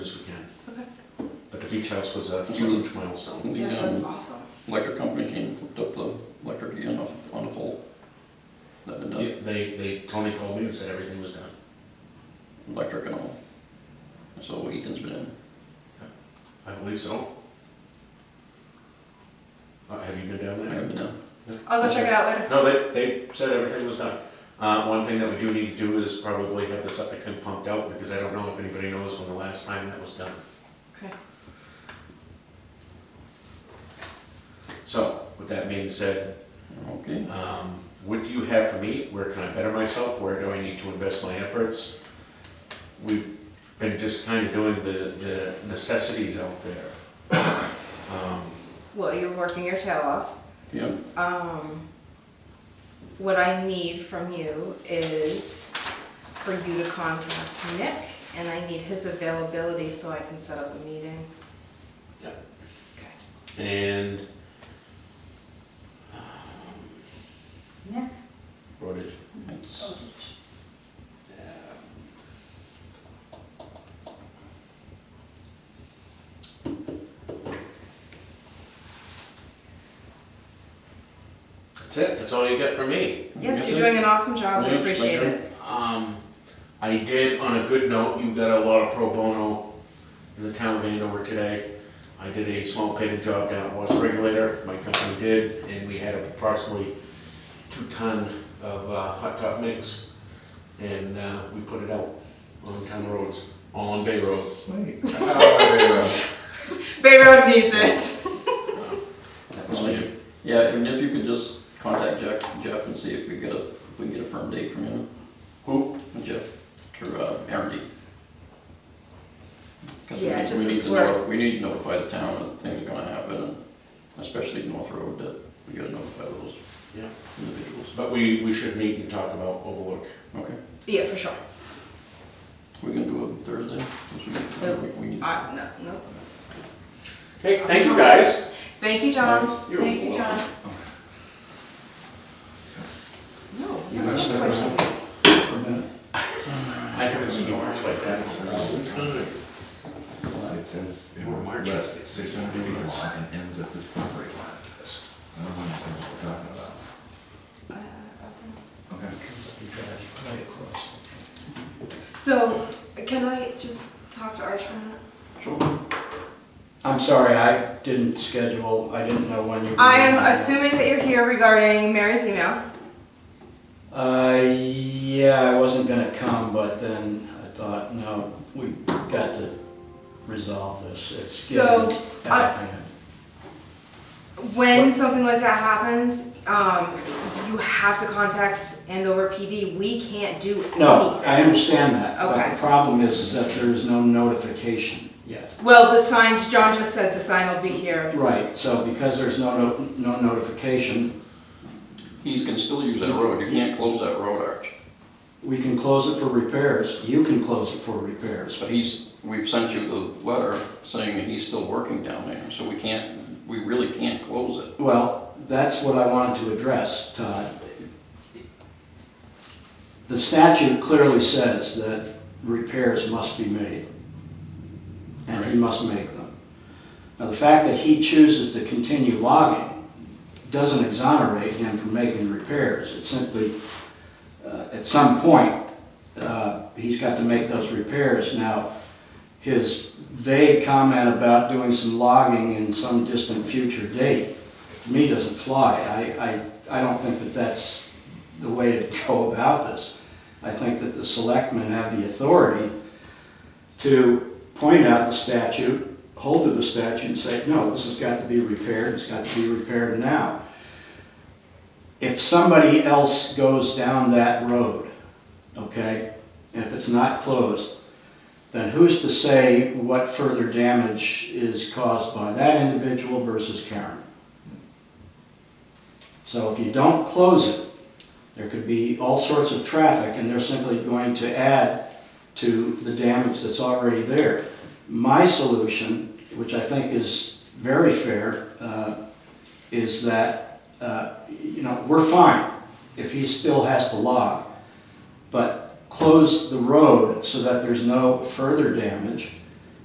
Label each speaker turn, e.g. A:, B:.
A: beach house was a huge milestone.
B: The
C: That's
B: um,
C: awesome.
B: electric company came, and hooked up the electric again off, on the pole. That had done,
A: Yeah, They, they, Tony called me and said everything was done.
B: electric and all. So Ethan's been in.
A: I believe so. Uh, Have you been down
B: I
A: there?
B: haven't been down.
C: I'll go check it out later.
A: No, they, they said everything was done. Uh, one thing that we do need to do is probably have the septic tank pumped out, because I don't know if anybody knows when the last time that was done.
C: Okay.
A: So, with that being said,
B: Okay.
A: um, what do you have for me? Where can I better myself? Where do I need to invest my efforts? We've been just kind of doing the, the necessities out there. Um,
C: Well, you're working your tail off.
B: Yeah,
C: Um, what I need from you is for you to contact Nick, and I need his availability so I can set up a meeting.
A: Yeah.
C: Okay.
A: And. um,
D: Nick
A: Rodage.
B: it's,
D: Odich.
A: That's it, that's all you get from me.
C: Yes,
B: Yeah.
C: you're doing an awesome job. We
B: Yeah,
C: appreciate
B: thank
C: it.
A: Um, I did, on a good note, you got a lot of pro bono in the town of Andover today. I did a small paving job down at West Regulator, my company did, and we had approximately two ton of uh, hot top mix. And uh, we put it out on town roads, all on Bay Road.
C: Bay Road needs it.
A: That was me.
B: yeah, and if you could just contact Jeff, Jeff and see if we get a, if we can get a firm date from him.
A: Who?
B: Jeff, to, uh, Aaron D. 'Cause we
C: Yeah,
B: need-
C: just
B: we need
C: this
B: to
C: work.
B: notif- We need to notify the town that things are gonna happen, and especially North Road, that we gotta notify those
A: Yeah.
B: individuals.
A: But we, we should meet and talk about Overlook.
B: Okay,
C: Yeah, for sure.
B: we can do it Thursday, since we-
C: Yeah.
B: we, we need.
C: I, Uh, no, no.
A: Hey, thank you guys.
C: Thank you, John.
A: You're
D: Thank you,
A: welcome.
D: John.
C: No,
E: You
C: no,
E: messed
C: no,
E: that
C: question.
E: up for a minute.
A: I haven't seen orange like that in a long time.
E: It says it
A: Or March.
E: west six hundred feet long and ends at this property line. I don't understand what we're talking about.
C: Uh,
E: Okay.
C: So, can I just talk to Arch for a minute?
B: Sure.
F: I'm sorry, I didn't schedule, I didn't know when you were.
C: I am assuming that you're here regarding Mary's email.
F: Uh, yeah, I wasn't gonna come, but then I thought, no, we got to resolve this. It's
C: So,
F: getting out
C: I-
F: of hand.
C: When something like that happens, um, you have to contact Andover PD. We can't do anything.
F: No, I understand that, but
C: Okay.
F: the problem is, is that there is no notification yet.
C: Well, the signs, John just said the sign will be here.
F: Right, so because there's no, no- no notification,
B: He can still use that road, you can't close that road arch,
F: we can close it for repairs, you can close it for repairs,
B: but he's, we've sent you the letter saying that he's still working down there, so we can't, we really can't close it.
F: Well, that's what I wanted to address, Todd. The statute clearly says that repairs must be made, and he must make them. Now, the fact that he chooses to continue logging doesn't exonerate him from making repairs. It simply, uh, at some point, uh, he's got to make those repairs. Now, his vague comment about doing some logging in some distant future date, to me, doesn't fly. I, I, I don't think that that's the way to go about this. I think that the selectmen have the authority to point out the statute, hold to the statute and say, no, this has got to be repaired, it's got to be repaired now. If somebody else goes down that road, okay, and if it's not closed, then who's to say what further damage is caused by that individual versus Karen? So if you don't close it, there could be all sorts of traffic, and they're simply going to add to the damage that's already there. My solution, which I think is very fair, uh, is that, uh, you know, we're fine if he still has to log, but close the road so that there's no further damage,